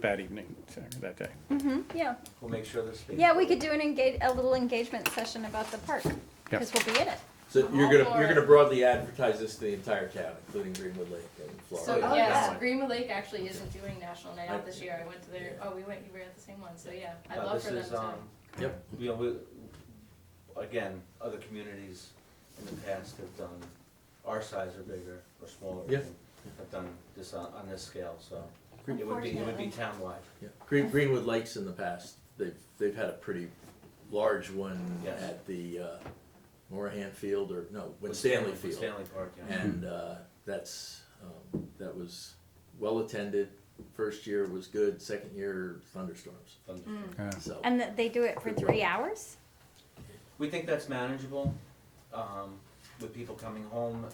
that evening, so, that day. hmm yeah. We'll make sure this. Yeah, we could do an engage, a little engagement session about the park, Yeah. because we'll be in it. So I'm you're all gonna, for you're it. gonna broadly advertise this to the entire town, including Greenwood Lake and So, Florida. Oh, yes, yeah. Greenwood Lake actually isn't doing National Night I- Out this year, I went to their, yeah. oh, we went, you were at the same one, so yeah, I'd Uh, love this for them is, to. um, Yep. You know, we, again, other communities in the past have done, our size are bigger or smaller. Yeah. Have done this on, on this scale, so it would be, it would be townwide. Yeah. Green, Greenwood Lakes in the past, they've, they've had a pretty large one Yes. at the, uh, Morahan Field or, no, With Stanley with Field. Stanley Park, Mm. yeah. And, uh, that's, um, that was well-attended. First year was good, second year thunderstorms, Thun- Yeah. so. And that they do it for three hours? We think that's manageable, um, with people coming home, uh,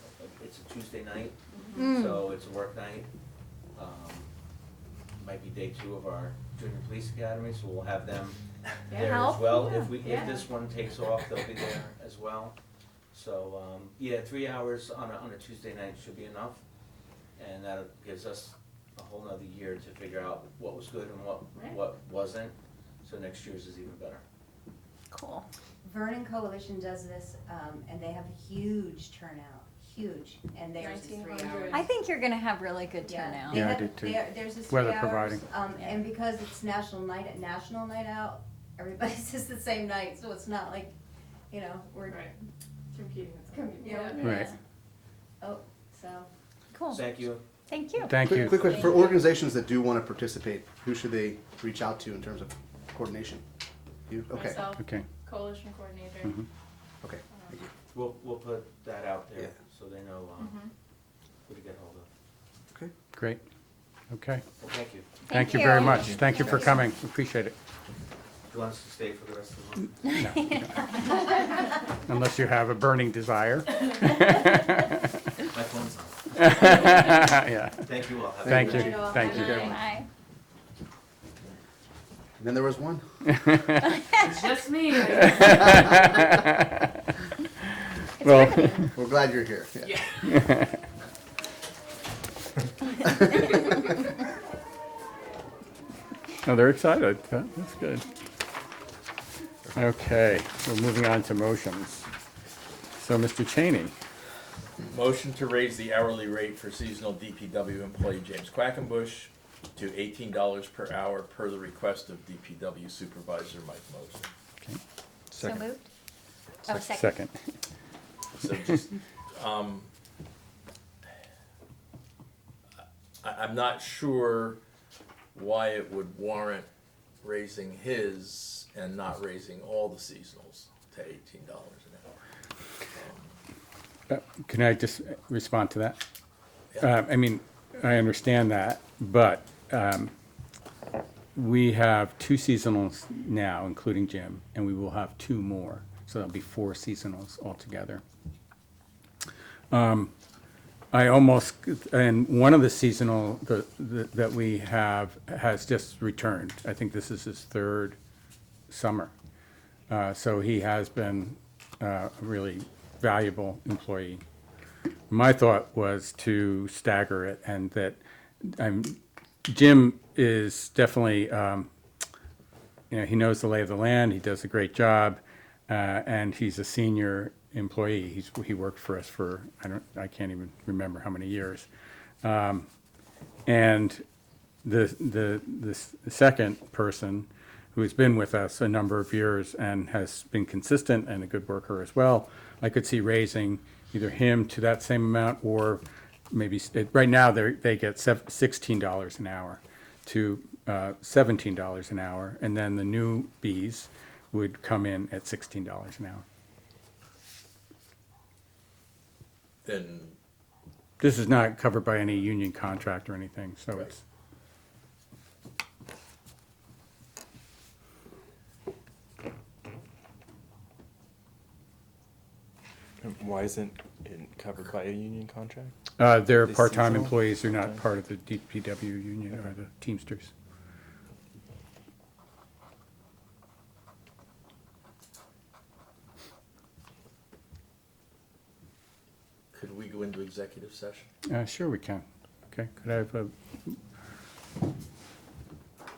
it's a Tuesday night, Mm-hmm. Mm, Hmm. so it's a work night. Um, Might be day two of our junior police academy, so we'll have them Yeah. there as Help. well. If we, Yeah. if this one takes off, they'll be there as well. So, um, yeah, three hours on a, on a Tuesday night should be enough. And that gives us a whole nother year to figure out what was good and what, Right. what wasn't. So next year's is even better. Cool. Vernon Coalition does this, um, and they have a huge turnout, huge, and theirs is three 1900. hours. I think you're gonna have really good Yeah. turnout. They Yeah, I have- did too. there- There's this three Weather hours. providing. Um, Yeah. and because it's national night, national night out, everybody says the same night, so it's not like, you know, we're, Right. Competing with them. Yeah. Right. Yeah. oh, so. Cool, Thank you. thank you. Thank Quick, you. quick question for organizations that do want to participate, who should they reach out to in terms of coordination? You? Okay. Myself, Okay, coalition coordinator. Mhm. Okay. um, We'll, we'll put that out Yeah. there so they know, um, Mhm. who to get hold of. Okay. great. Okay. Well, thank you. Thank you very much. Thank you for coming. Appreciate it. You want us to stay for the rest of the month? Unless you have a burning desire. Um, My phone's on. Yeah. Thank you all. Have a Thank good you, night. thank you. Bye. And then there was one. It's just me. Well, We're glad you're here. Yeah. no, oh, they're excited. That- That's good. Okay, we're moving on to motions. So, Mr. Cheney, Motion to raise the hourly rate for seasonal DPW employee James Quackenbush to eighteen dollars per hour per the request of DPW Supervisor Mike Moser. So moved? Oh, second. second. So just, um, I, I'm not sure why it would warrant raising his and not raising all the seasonals to eighteen dollars an hour. Uh, Can I just respond to that? Uh, I mean, I understand that, but um, we have two seasonals now, including Jim, and we will have two more. So that'll be four seasonals altogether. Um, I almost, and one of the seasonal the- the- that we have has just returned. I think this is his third summer. Uh, So he has been uh, a really valuable employee. My thought was to stagger it and that, I'm, Jim is definitely, um, you know, he knows the lay of the land, he does a great job, uh, and he's a senior employee. He's, he worked for us for, I don't, I can't even remember how many years. Um, And the, the, the s- the second person who has been with us a number of years and has been consistent and a good worker as well, I could see raising either him to that same amount or maybe, s- it- right now, they, they get sev- sixteen dollars an hour to uh, seventeen dollars an hour, and then the newbies would come in at sixteen dollars an hour. Then This is not covered by any union contract or anything, so it's, Um, Why isn't it covered by a union contract? Uh, they're They part-time seasonal? employees, they're not Okay. part of the DPW union or the Teamsters. could we go into executive session? Uh, sure we can. Okay, could I have a